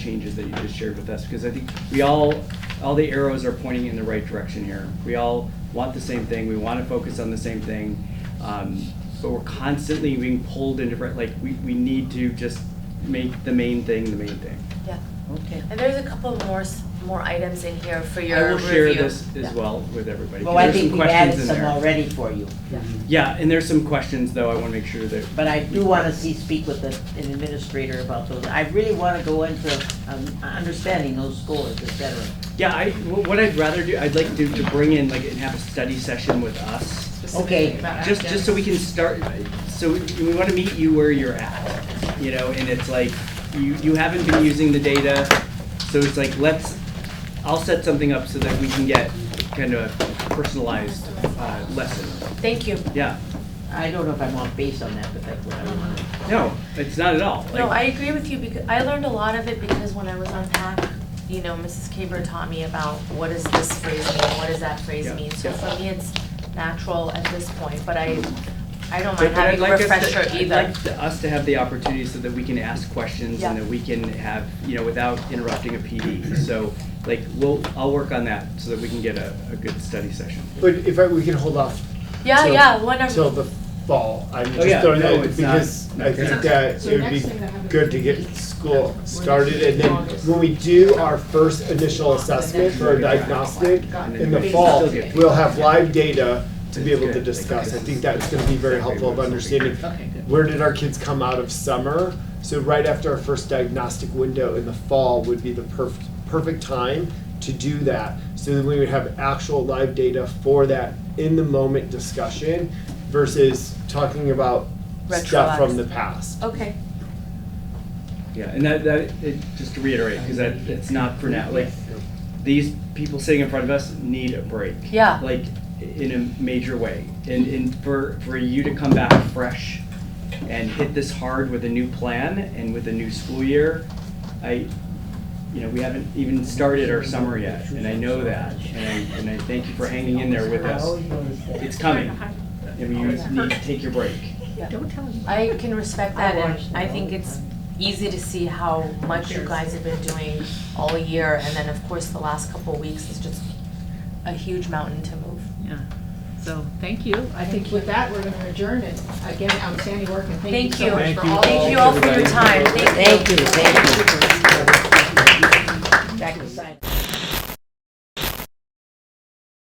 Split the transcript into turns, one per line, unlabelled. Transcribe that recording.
changes that you just shared with us, because I think we all, all the arrows are pointing in the right direction here. We all want the same thing, we want to focus on the same thing, um, but we're constantly being pulled in different, like, we, we need to just make the main thing the main thing.
Yeah,
Okay.
and there's a couple more, s- more items in here for
I
your
will
review.
share this as
Yeah.
well with everybody. 'cause
Well, I
there's
think
some
we've added
questions in
some
there.
already for you,
Yeah.
Yeah, and there's some questions, though, I want to make sure that,
but I do want to see, speak with the- an administrator about those. I really want to go into um, understanding those scores, et cetera.
yeah, I, wh- what I'd rather do, I'd like to, to bring in, like, and have a study session with us.
Okay.
Just, just so we can start, so we- we wanna meet you where you're at, you know, and it's like, you, you haven't been using the data, so it's like, let's, I'll set something up so that we can get kind of personalized, uh, lesson,
Thank you.
yeah,
I don't know if I want base on that, but that's what I want.
no, it's not at all,
No, I
like,
agree with you because I learned a lot of it because when I was on PAC, you know, Mrs. Kaber taught me about what does this phrase mean, what does that phrase
Yeah.
mean? So for me, it's natural at this point, but I, I don't
but-
mind
but I'd
having
like
a
us to-
refresher
I'd
either.
like to- us to have the opportunity so that we can ask questions and
Yeah.
that we can have, you know, without interrupting a PD, so, like, we'll, I'll work on that so that we can get a, a good study session.
But if I, we can hold off.
Yeah,
till-
yeah, whenever.
Till the fall, I'm
Oh, yeah,
just throwing
no,
that,
it's not-
because
not
I
gonna
think
happen.
that
So
it would
next
be
thing that happens
good to
is
get
weeks.
school
We're
started, and then
August.
when we do our first initial assessment for a diagnostic
Got
it.
in the
It's
fall,
still good.
we'll have live data to be
It's
able to
good.
discuss. I think that's gonna be very helpful of understanding
Okay, good.
where did our kids come out of summer? So right after our first diagnostic window in the fall would be the perfect perfect time to do that. So then we would have actual live data for that in the moment discussion versus talking about stuff from the past.
Okay,
Yeah, and that, that, it, just to reiterate, because that, it's not for now, like, these people sitting in front of us need a break.
Yeah.
Like, in a major way, and, and for, for you to come back fresh and hit this hard with a new plan and with a new school year, I, you know, we haven't even started our summer yet, and I know that, and I, and I thank you for hanging in there with
I
us.
always notice that.
It's coming, and you need to take your break.
I can respect
I
that and
watched
I
it
think
all the
it's
time.
easy to see how much you guys have been doing all year and then of course the last couple of weeks is just a huge mountain to move.
Yeah, so, thank you.
I think with that, we're gonna adjourn it. Again, outstanding work and thank you so much
Thank
for
you.
all.
Thank you all for your
Everybody.
time, thank you.
Thank you, thank you. Back to sign.